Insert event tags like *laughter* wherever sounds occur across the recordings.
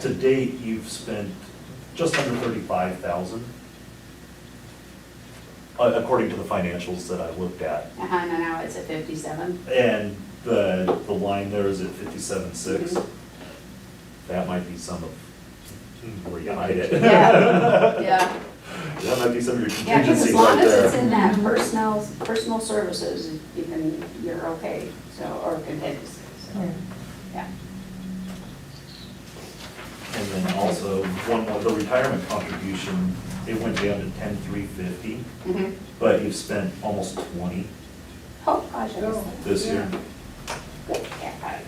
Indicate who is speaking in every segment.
Speaker 1: to date, you've spent just under thirty-five thousand, uh, according to the financials that I looked at.
Speaker 2: Uh-huh, and now it's at
Speaker 3: *laughs*
Speaker 2: fifty-seven.
Speaker 1: And the, the line there is at fifty-seven six.
Speaker 2: Mhm. Mm-hmm.
Speaker 1: That might be some of where you hide it.
Speaker 2: Yeah, yeah.
Speaker 1: *laughs* That might be some of your
Speaker 2: Yeah, because as
Speaker 1: contingencies right
Speaker 2: long as it's
Speaker 1: there.
Speaker 2: in that personal, personal services, you can, you're okay, so, or contingency, so, yeah.
Speaker 1: And then also, one more, the retirement contribution, it went down to ten-three fifty,
Speaker 2: Mhm.
Speaker 1: but you've spent almost twenty
Speaker 2: Oh, gosh, I missed
Speaker 1: this year.
Speaker 2: that. Good catch.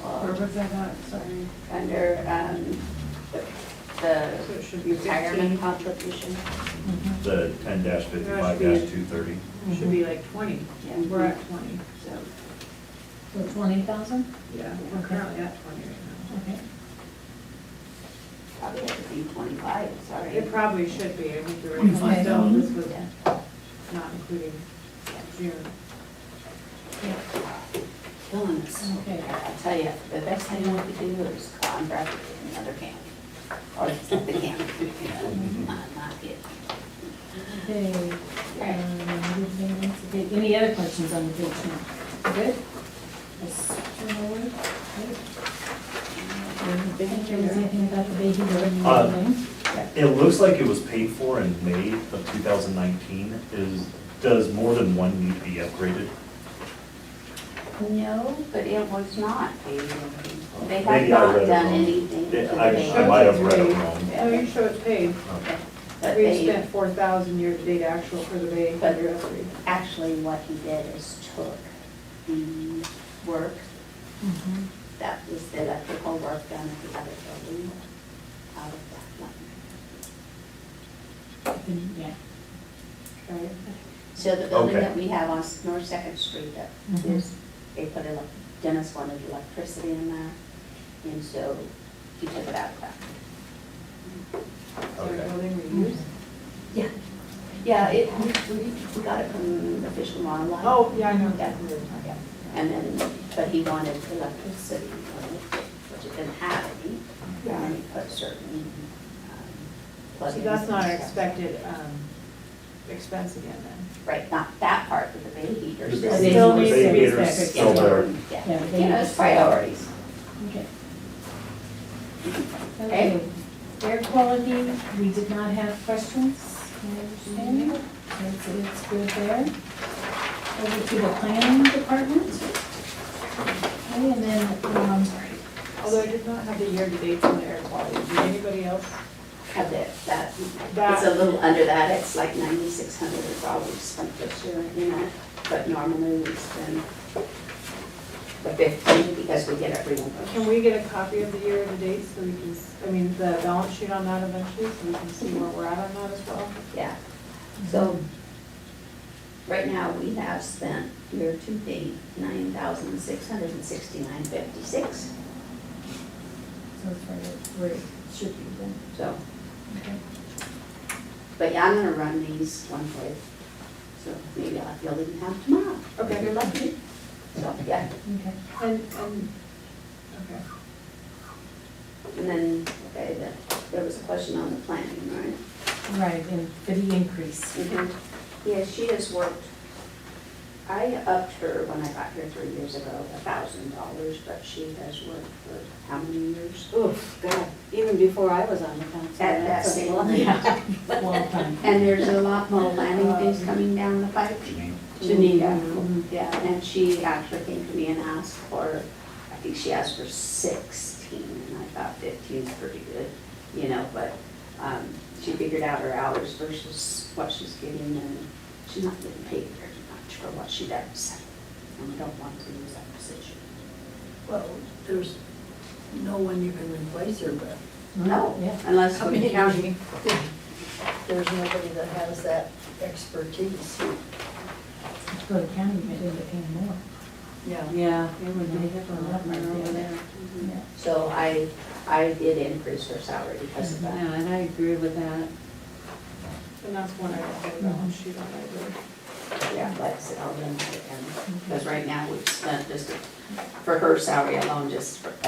Speaker 3: Where
Speaker 2: Well,
Speaker 3: was that at, sorry?
Speaker 2: Under, um, the-
Speaker 3: So it should
Speaker 2: the
Speaker 3: be
Speaker 2: retirement contribution,
Speaker 1: The ten fifty-five two thirty.
Speaker 3: Should be like twenty,
Speaker 2: Yeah.
Speaker 3: we're at twenty,
Speaker 2: so,
Speaker 4: So twenty thousand?
Speaker 3: yeah, we're currently at twenty right
Speaker 4: Okay.
Speaker 2: probably have to be twenty-five,
Speaker 3: now.
Speaker 2: sorry.
Speaker 3: It probably should be, I think the reason why
Speaker 4: Okay.
Speaker 3: so this was
Speaker 2: Yeah.
Speaker 3: not including June.
Speaker 2: Killing us.
Speaker 4: Okay.
Speaker 2: I tell you, the best thing we could do is contract with another county, or the county, you
Speaker 1: *laughs*
Speaker 2: know, not, not it.
Speaker 4: Okay, um, good maintenance, okay. any other questions on the bid now? Good? Let's turn over. Good. If there was anything about the baby door and
Speaker 1: Uh,
Speaker 4: everything.
Speaker 1: It looks like it was paid for in May of two thousand nineteen. Is, does more than one need to be upgraded?
Speaker 2: No, but it was not. They- They have
Speaker 1: Maybe I read
Speaker 2: not
Speaker 1: it
Speaker 2: done
Speaker 1: wrong.
Speaker 2: anything.
Speaker 1: Yeah,
Speaker 2: to
Speaker 1: I-
Speaker 2: the
Speaker 1: I might have read it wrong.
Speaker 3: Oh, you show it's paid,
Speaker 1: Okay.
Speaker 2: But
Speaker 3: we
Speaker 2: they,
Speaker 3: spent four thousand year-to-date actual for the Bay
Speaker 2: But-
Speaker 3: anniversary.
Speaker 2: actually what he did is took the work
Speaker 4: Mhm.
Speaker 2: that was the electrical work done at the other building out of that one.
Speaker 4: Good, Mm-hmm. Yeah.
Speaker 3: right?
Speaker 2: So the building
Speaker 1: Okay.
Speaker 2: that we have on S- North Second Street that
Speaker 3: Mm-hmm.
Speaker 4: Mhm.
Speaker 2: is, they put in, Dennis wanted electricity in that, and so he took it out of that.
Speaker 3: So
Speaker 1: Okay.
Speaker 3: building reuse.
Speaker 2: Mm-hmm. Yeah. Yeah, it, we, we- we got it from the Fish and Wildlife.
Speaker 3: Oh, yeah, I know.
Speaker 2: Yeah, yeah. And then, but he wanted electricity, which it didn't have any, and then he put certain, um.
Speaker 3: So that's not
Speaker 2: plugins
Speaker 3: an
Speaker 2: and stuff.
Speaker 3: expected, um, expense again then.
Speaker 2: Right, not that part, but the bay heater.
Speaker 1: The
Speaker 4: But
Speaker 2: still
Speaker 4: they-
Speaker 3: Still
Speaker 4: they-
Speaker 3: needs to be
Speaker 4: they-
Speaker 3: fixed.
Speaker 4: they're
Speaker 1: Still there.
Speaker 2: Yeah,
Speaker 4: Yeah, but they-
Speaker 2: you know, it's priorities.
Speaker 4: Okay.
Speaker 2: Okay.
Speaker 4: Okay, air quality, we did not have questions, my understanding, it's, it's good there. Over to the planning department. Okay, and then, um,
Speaker 3: Although I did not have the year-to-dates on the air quality, did anybody else?
Speaker 2: Have that, that,
Speaker 3: That-
Speaker 2: it's a little under that, it's like ninety-six hundred is all we've spent this year, you know, but normally we spend the fifteen because we get everyone.
Speaker 3: Can we get a copy of the year-to-date so we can, s- I mean, the balance sheet on that eventually, so we can see where we're at on that as well?
Speaker 2: Yeah, so, right now, we have spent year to date nine thousand six hundred and sixty-nine fifty-six,
Speaker 4: so it's where it- where it should be then,
Speaker 2: so,
Speaker 4: okay.
Speaker 2: but yeah, I'm gonna run these one way. So maybe I'll, you'll even have tomorrow.
Speaker 3: Okay.
Speaker 2: If you're lucky, so, yeah.
Speaker 4: Okay.
Speaker 3: And, and, okay.
Speaker 2: And then, okay, the- there was a question on the planning, right?
Speaker 4: Right, and for the increase.
Speaker 2: Yeah, she has worked, I upped her when I got here three years ago, a thousand dollars, but she has worked for how many years?
Speaker 5: Oof, God, even before I was on the council.
Speaker 2: At that
Speaker 5: that's a
Speaker 2: same
Speaker 5: lot.
Speaker 2: level.
Speaker 4: Well done.
Speaker 2: And there's a lot more landing things coming down the pipe. Janita, yeah, and she actually came to me and asked for, I think she asked for sixteen, and I thought fifteen's pretty good, you know, but, um, she figured out her hours versus what she's getting, and she's not getting paid very much for what she does. And we don't want to lose that position.
Speaker 6: Well, there's no one you can replace her with.
Speaker 2: No,
Speaker 4: Yeah.
Speaker 2: unless
Speaker 6: I
Speaker 2: we
Speaker 6: mean,
Speaker 2: count
Speaker 6: There's nobody that has that expertise.
Speaker 4: If you Go to county, you might end up paying more.
Speaker 6: Yeah.
Speaker 5: Yeah, they would be
Speaker 4: Yeah.
Speaker 5: different over there.
Speaker 4: Yeah.
Speaker 2: So I, I did increase her salary because of that.
Speaker 5: Yeah, and I agree with that.
Speaker 3: And that's one I don't have the balance sheet on, I believe.
Speaker 2: yeah, let's, I'll run it down. Because right now, we've spent just for her salary alone, just for